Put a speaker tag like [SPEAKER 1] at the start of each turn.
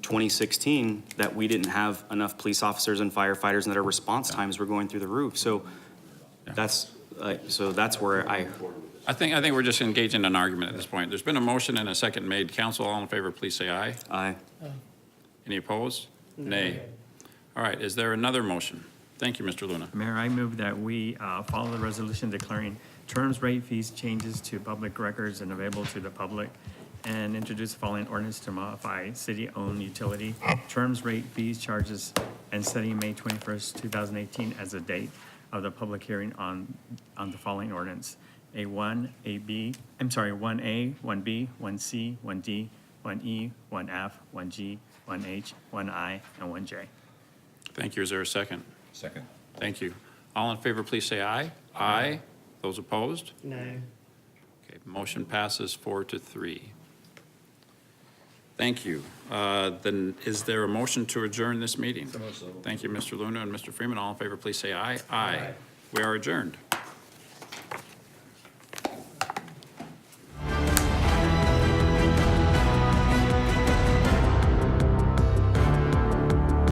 [SPEAKER 1] 2016 that we didn't have enough police officers and firefighters and that our response times were going through the roof. So that's, uh, so that's where I,
[SPEAKER 2] I think, I think we're just engaged in an argument at this point. There's been a motion and a second made. Council, all in favor, please say aye.
[SPEAKER 1] I,
[SPEAKER 2] Any opposed? Nay. All right, is there another motion? Thank you, Mr. Luna.
[SPEAKER 3] Mayor, I move that we uh, follow the resolution declaring terms, rate, fees, changes to public records and available to the public, and introduce following ordinance to modify city-owned utility terms, rate, fees, charges, and setting May 21st, 2018 as a date of the public hearing on, on the following ordinance. A1, AB, I'm sorry, 1A, 1B, 1C, 1D, 1E, 1F, 1G, 1H, 1I, and 1J.
[SPEAKER 2] Thank you. Is there a second?
[SPEAKER 4] Second.
[SPEAKER 2] Thank you. All in favor, please say aye. Aye. Those opposed?
[SPEAKER 5] No.
[SPEAKER 2] Okay, motion passes four to three. Thank you. Uh, Then is there a motion to adjourn this meeting? Thank you, Mr. Luna and Mr. Freeman. All in favor, please say aye. Aye. We are adjourned.